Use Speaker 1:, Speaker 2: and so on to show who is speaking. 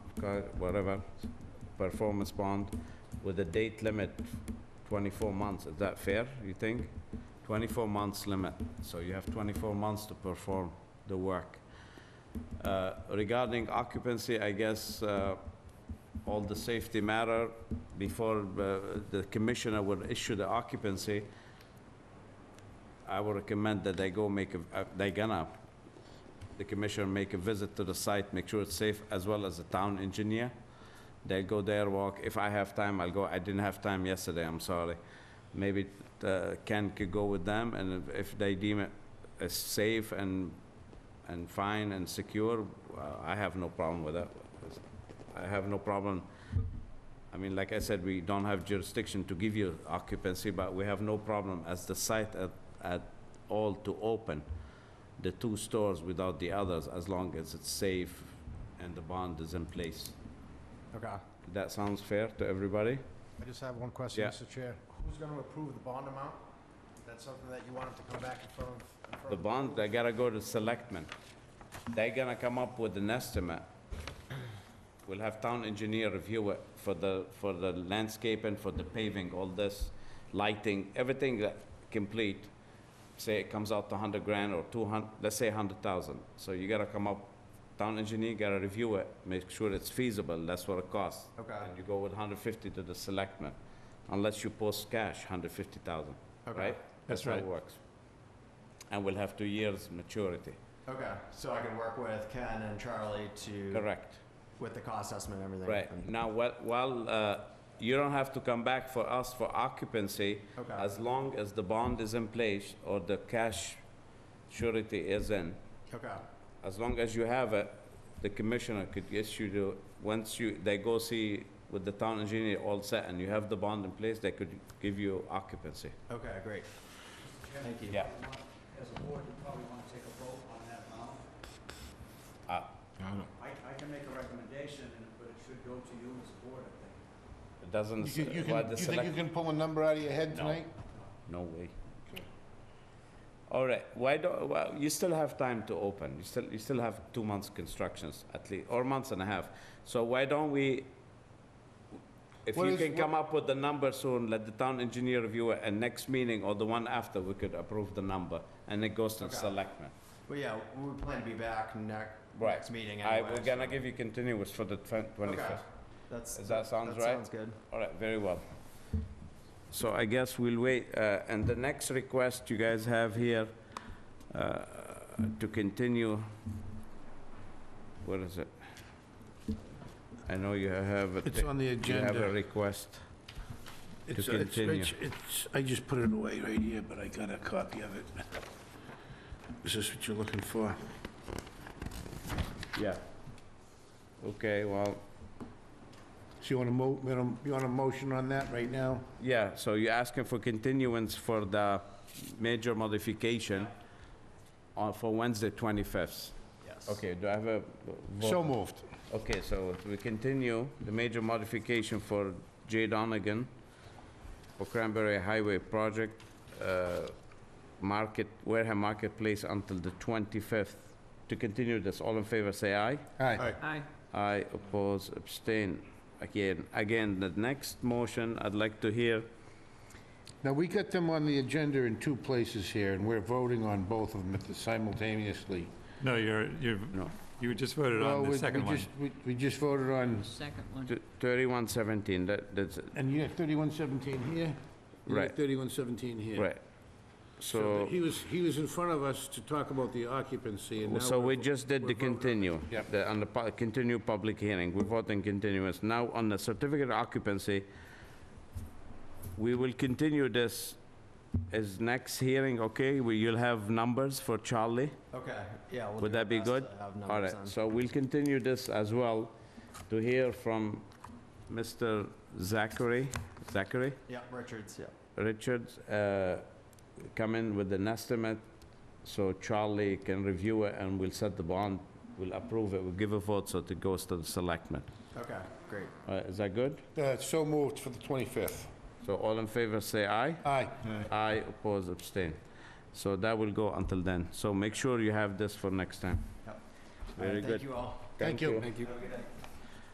Speaker 1: co- whatever, performance bond with a date limit 24 months. Is that fair, you think? 24 months limit, so you have 24 months to perform the work. Uh, Regarding occupancy, I guess uh, all the safety matter before uh, the commissioner would issue the occupancy, I would recommend that they go make, a- uh, they gonna, the commissioner make a visit to the site, make sure it's safe, as well as the town engineer. They go there, walk, if I have time, I'll go, I didn't have time yesterday, I'm sorry. Maybe uh, Ken could go with them, and if- if they deem it as safe and, and fine and secure, uh, I have no problem with that. I have no problem I mean, like I said, we don't have jurisdiction to give you occupancy, but we have no problem as the site at, at all to open the two stores without the others, as long as it's safe and the bond is in place.
Speaker 2: Okay.
Speaker 1: That sounds fair to everybody?
Speaker 2: I just have one question,
Speaker 1: Yeah.
Speaker 2: Mr. Chair. Who's gonna approve the bond amount? Is that something that you want him to come back in front of? in front
Speaker 1: The
Speaker 2: of-
Speaker 1: bond, they gotta go to selectmen. They're gonna come up with an estimate. We'll have town engineer review it for the, for the landscaping, for the paving, all this, lighting, everything that complete. Say it comes out to hundred grand or two hundred. let's say hundred thousand. So you gotta come up, town engineer gotta review it, make sure it's feasible, that's what it costs.
Speaker 2: Okay.
Speaker 1: And you go with hundred fifty to the selectmen, unless you post cash, hundred fifty thousand,
Speaker 2: Okay.
Speaker 1: right?
Speaker 3: That's
Speaker 1: how it
Speaker 3: right.
Speaker 1: works and we'll have two years maturity.
Speaker 4: Okay, so I can work with Ken and Charlie to.
Speaker 1: Correct.
Speaker 4: With the cost estimate and everything.
Speaker 1: Right.
Speaker 4: And-
Speaker 1: Now, while- while, uh, you don't have to come back for us for occupancy,
Speaker 4: Okay.
Speaker 1: as long as the bond is in place or the cash surety is in,
Speaker 4: Okay,
Speaker 1: as long as you have it, the commissioner could issue the, once you, they go see with the town engineer all set and you have the bond in place, they could give you occupancy.
Speaker 4: okay, great. Thank you.
Speaker 1: Yeah.
Speaker 5: As a board, you probably want to take a vote on that amount.
Speaker 1: Uh,
Speaker 5: I, I can make a recommendation, and- but it should go to you as a board, I think.
Speaker 1: It doesn't,
Speaker 3: You can, you
Speaker 1: why
Speaker 3: can,
Speaker 1: the
Speaker 3: you think you
Speaker 1: select,
Speaker 3: can pull a number out of your head
Speaker 1: No.
Speaker 3: tonight?
Speaker 1: no way. All right, why don't, well, you still have time to open, you still, you still have two months constructions at least, or months and a half. So why don't we, if
Speaker 3: What
Speaker 1: you
Speaker 3: is-
Speaker 1: can come up with the number soon, let the town engineer review it, and next meeting or the one after, we could approve the number, and it goes to the
Speaker 4: Okay.
Speaker 1: selectmen.
Speaker 4: Well, yeah, we plan to be back next,
Speaker 1: Right.
Speaker 4: next meeting
Speaker 1: I,
Speaker 4: anyway.
Speaker 1: we're gonna give you continuous for the
Speaker 4: Okay.
Speaker 1: twenty-fifth.
Speaker 4: That's.
Speaker 1: Does that sounds
Speaker 4: that
Speaker 1: right?
Speaker 4: Sounds good.
Speaker 1: All right, very well. So I guess we'll wait, uh, and the next request you guys have here uh, to continue, what is it? I know you have, a
Speaker 3: It's
Speaker 1: thi-
Speaker 3: on the
Speaker 1: you have a
Speaker 3: agenda.
Speaker 1: request.
Speaker 3: It's-
Speaker 1: to
Speaker 3: it's-
Speaker 1: continue.
Speaker 3: it's- It's, I just put it away right here, but I got a copy of it. Is this what you're looking for?
Speaker 1: Yeah. Okay, well,
Speaker 3: So you want to mo, you wanna- you want a motion on that right now?
Speaker 1: yeah, so you're asking for continuance for the major modification on, for Wednesday 25th.
Speaker 4: Yes.
Speaker 1: Okay, do I have a vote?
Speaker 3: So moved.
Speaker 1: Okay, so we continue the major modification for Jay Donegan for Cranberry Highway Project, uh, Market, Wareham Marketplace until the 25th. To continue this, all in favor, say aye.
Speaker 3: Aye.
Speaker 5: Aye.
Speaker 1: Aye, oppose, abstain. Again, again, the next motion, I'd like to hear,
Speaker 3: Now, we got them on the agenda in two places here, and we're voting on both of them at the- simultaneously.
Speaker 6: No, you're, you're,
Speaker 1: no,
Speaker 6: you just voted
Speaker 3: Well,
Speaker 6: on
Speaker 3: we-
Speaker 6: the
Speaker 3: we
Speaker 6: second one.
Speaker 3: just- we- We just voted on,
Speaker 7: Second one.
Speaker 1: th- 3117, that, that's,
Speaker 3: and you had 3117 here? you had
Speaker 1: Right.
Speaker 3: 3117 here.
Speaker 1: right.
Speaker 3: So
Speaker 1: So,
Speaker 3: he was, he was in front of us to talk about the occupancy, and now...
Speaker 1: so we
Speaker 3: we're-
Speaker 1: just did the
Speaker 3: we're voting-
Speaker 1: continue,
Speaker 3: Yep.
Speaker 1: the, on the pu- continue public hearing, we're voting continuance. Now, on the certificate of occupancy, we will continue this, is next hearing, okay? We, you'll have numbers for Charlie?
Speaker 4: Okay, yeah. we'll
Speaker 1: Would
Speaker 4: do our
Speaker 1: that be
Speaker 4: best
Speaker 1: good?
Speaker 4: to have
Speaker 1: All
Speaker 4: numbers
Speaker 1: right,
Speaker 4: on.
Speaker 1: so we'll continue this as well to hear from Mr. Zachary, Zachary,
Speaker 4: Yeah, Richards, yeah.
Speaker 1: Richards, uh, come in with an estimate, so Charlie can review it, and we'll set the bond, we'll approve it, we'll give a vote, so it goes to the selectmen.
Speaker 4: Okay, great.
Speaker 1: All right, Is that good?
Speaker 3: Uh, So moved for the 25th.
Speaker 1: So all in favor, say aye.
Speaker 3: Aye.
Speaker 1: Aye, oppose, abstain. So that will go until then. So make sure you have this for next time.
Speaker 4: Yep. All right,
Speaker 1: Very good.
Speaker 4: Thank you all.
Speaker 3: Thank you.
Speaker 4: Have a good night.